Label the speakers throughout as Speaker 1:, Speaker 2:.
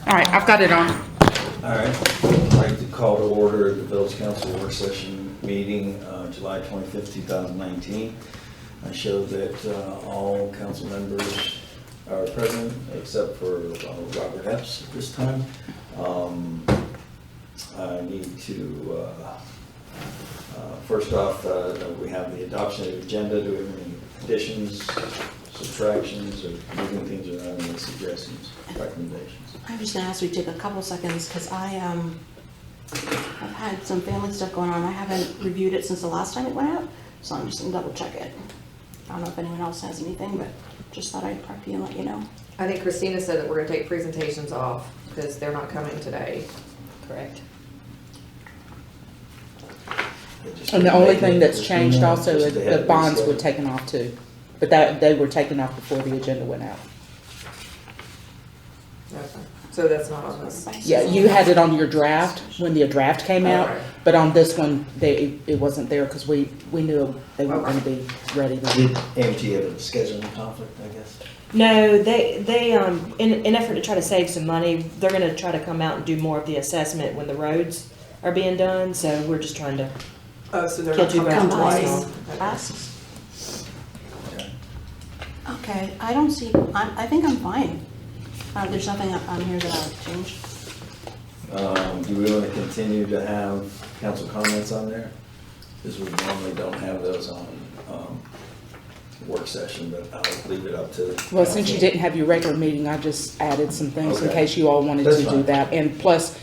Speaker 1: All right, I've got it on.
Speaker 2: All right, I'd like to call to order the Village Council Work Session Meeting, uh, July 25th, 2019. I show that uh, all council members are present except for uh, Robert Epps at this time. Um, I need to, uh, uh, first off, uh, we have the adoption of the agenda. Do we have any additions, subtractions, or moving things around, any suggestions, recommendations?
Speaker 3: I just asked we take a couple seconds, because I, um, I've had some family stuff going on, I haven't reviewed it since the last time it went out, so I'm just gonna double check it. I don't know if anyone else has anything, but just thought I'd prep you and let you know.
Speaker 4: I think Christina said that we're gonna take presentations off because they're not coming today. Correct.
Speaker 5: And the only thing that's changed also is the bonds were taken off too, but that, they were taken off before the agenda went out.
Speaker 4: So that's not on this.
Speaker 5: Yeah, you had it on your draft when the draft came out,
Speaker 4: Okay.
Speaker 5: but on this one, they, it wasn't there because we, we knew they weren't gonna be ready.
Speaker 2: Did
Speaker 5: then.
Speaker 2: AMT have a scheduling conflict, I guess?
Speaker 6: No, they, they, um, in, in effort to try to save some money, they're gonna try to come out and do more of the assessment when the roads are being done, so we're just trying to,
Speaker 4: Oh, so they're
Speaker 6: Can't
Speaker 4: not
Speaker 6: do
Speaker 4: coming
Speaker 6: that
Speaker 4: twice.
Speaker 6: twice.
Speaker 3: Asks.
Speaker 2: Okay.
Speaker 3: Okay, I don't see, I, I think I'm fine. Uh, there's nothing up on here that I would change.
Speaker 2: Um, Do we want to continue to have council comments on there? Because we normally don't have those on um, work session, but I'll leave it up to.
Speaker 5: Well, since you
Speaker 2: council.
Speaker 5: didn't have your regular meeting, I just added some things in
Speaker 2: Okay.
Speaker 5: case you all wanted
Speaker 2: That's
Speaker 5: to do
Speaker 2: fine.
Speaker 5: that. And plus,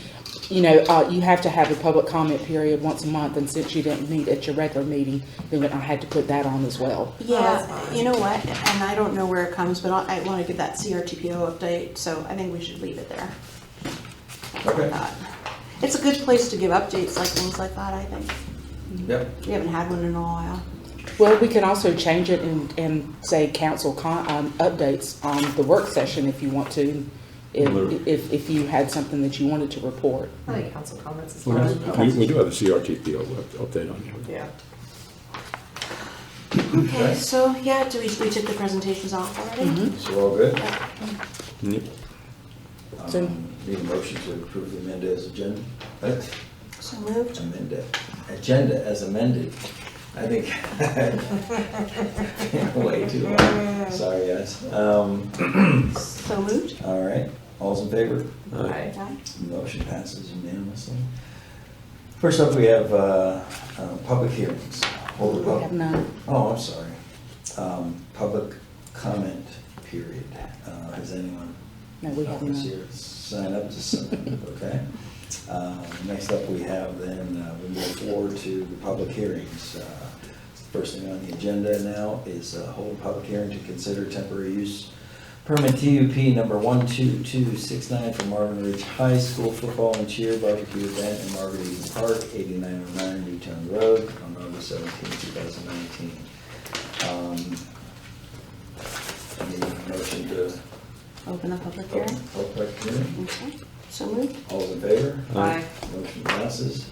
Speaker 5: you know, uh, you have to have a public comment period once a month, and since you didn't meet at your regular meeting, then I had to put that on as well.
Speaker 4: that's
Speaker 3: Yeah,
Speaker 4: fine.
Speaker 3: Uh, you know what, and I don't know where it comes, but I, I wanna give that CRTPO update, so I think we should leave it there.
Speaker 2: Okay.
Speaker 3: That. It's a good place to give updates, like things like that, I think.
Speaker 2: Yep,
Speaker 3: We haven't had one in a while.
Speaker 5: Well, we can also change it and, and say council con, um, updates on the work session if you want to. If, if, if you had something that you wanted to report.
Speaker 4: I think council comments is
Speaker 7: Well, We,
Speaker 4: fine.
Speaker 7: we do have a CRTP up- update on you.
Speaker 4: Yeah.
Speaker 3: Okay, so, yeah, do we, we took the presentations off
Speaker 5: Mm-hmm.
Speaker 3: already?
Speaker 2: so all good?
Speaker 7: Yep.
Speaker 5: So-
Speaker 2: Um, Need a motion to approve the amended as agenda? That's
Speaker 3: So moved.
Speaker 2: amended, agenda as amended. I think. Way too long, sorry guys. Um,
Speaker 3: So moved.
Speaker 2: All right, all's in favor?
Speaker 4: Aye.
Speaker 3: Okay.
Speaker 2: Motion passes unanimously. First up, we have uh, uh, public hearings. Hold it
Speaker 5: We
Speaker 2: up.
Speaker 5: have none.
Speaker 2: Oh, I'm sorry. Um, Public comment period. Uh, Has anyone?
Speaker 5: No, we have
Speaker 2: Nobody's
Speaker 5: none.
Speaker 2: here. Sign up to sign, okay? Uh, Next up, we have then, uh, we move forward to the public hearings. Uh, First thing on the agenda now is uh, hold public hearing to consider temporary use permit TUP number 12269 for Marvin Ridge High School football and cheer barbecue event in Marvin Eden Park, 8909 Newtown Road, on August 17, 2019. Um, Need a motion to
Speaker 3: Open the public
Speaker 2: Open
Speaker 3: hearing.
Speaker 2: public hearing.
Speaker 3: Okay. So moved.
Speaker 2: All's in favor?
Speaker 4: Aye.
Speaker 2: Motion passes.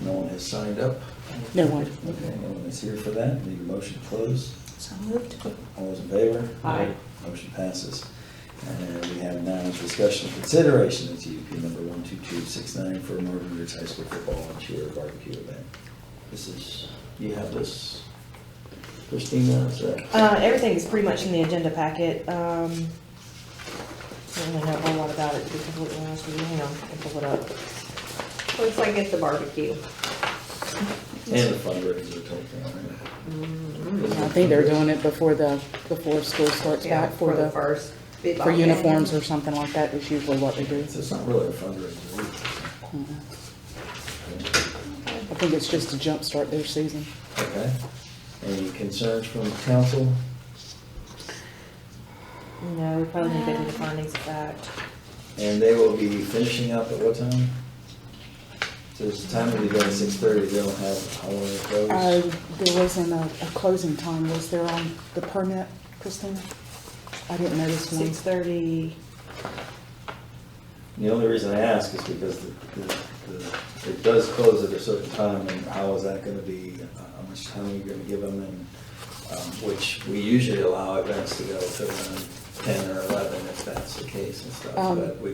Speaker 2: No one has signed up.
Speaker 5: No one.
Speaker 2: Okay, no one is here for that. Need a motion to close.
Speaker 3: So moved.
Speaker 2: All those in favor?
Speaker 4: Aye.
Speaker 2: Motion passes. And we have now is discussion and consideration of TUP number 12269 for Marvin Ridge High School football and cheer barbecue event. This is, you have this, Christina, is that?
Speaker 6: uh, everything is pretty much in the agenda packet, um, I don't really know a whole lot about it, to be completely honest with you, hang on, I'll pull it up.
Speaker 4: Looks like it's a barbecue.
Speaker 2: And the fundraiser type thing, right?
Speaker 5: I think they're doing it before the, before school starts
Speaker 4: Yeah,
Speaker 5: back for the,
Speaker 4: first.
Speaker 5: for uniforms or something like that is usually what they do.
Speaker 2: So it's not really a fundraiser.
Speaker 5: I think it's just to jumpstart their season.
Speaker 2: Okay. Any concerns from council?
Speaker 6: No, we probably need to do the findings of fact.
Speaker 2: And they will be finishing up at what time? So it's the time of the day, six thirty, they don't have, how long it
Speaker 5: Uh,
Speaker 2: goes?
Speaker 5: there wasn't a, a closing time, was there on the permit, Christina? I didn't notice one.
Speaker 6: Six thirty,
Speaker 2: The only reason I ask is because the, the- the- it does close at a certain time, and how is that gonna be, uh, how much time are you gonna give them? And, um, which we usually allow events to go till around ten or eleven, if that's the case and stuff,
Speaker 5: Um,
Speaker 2: but we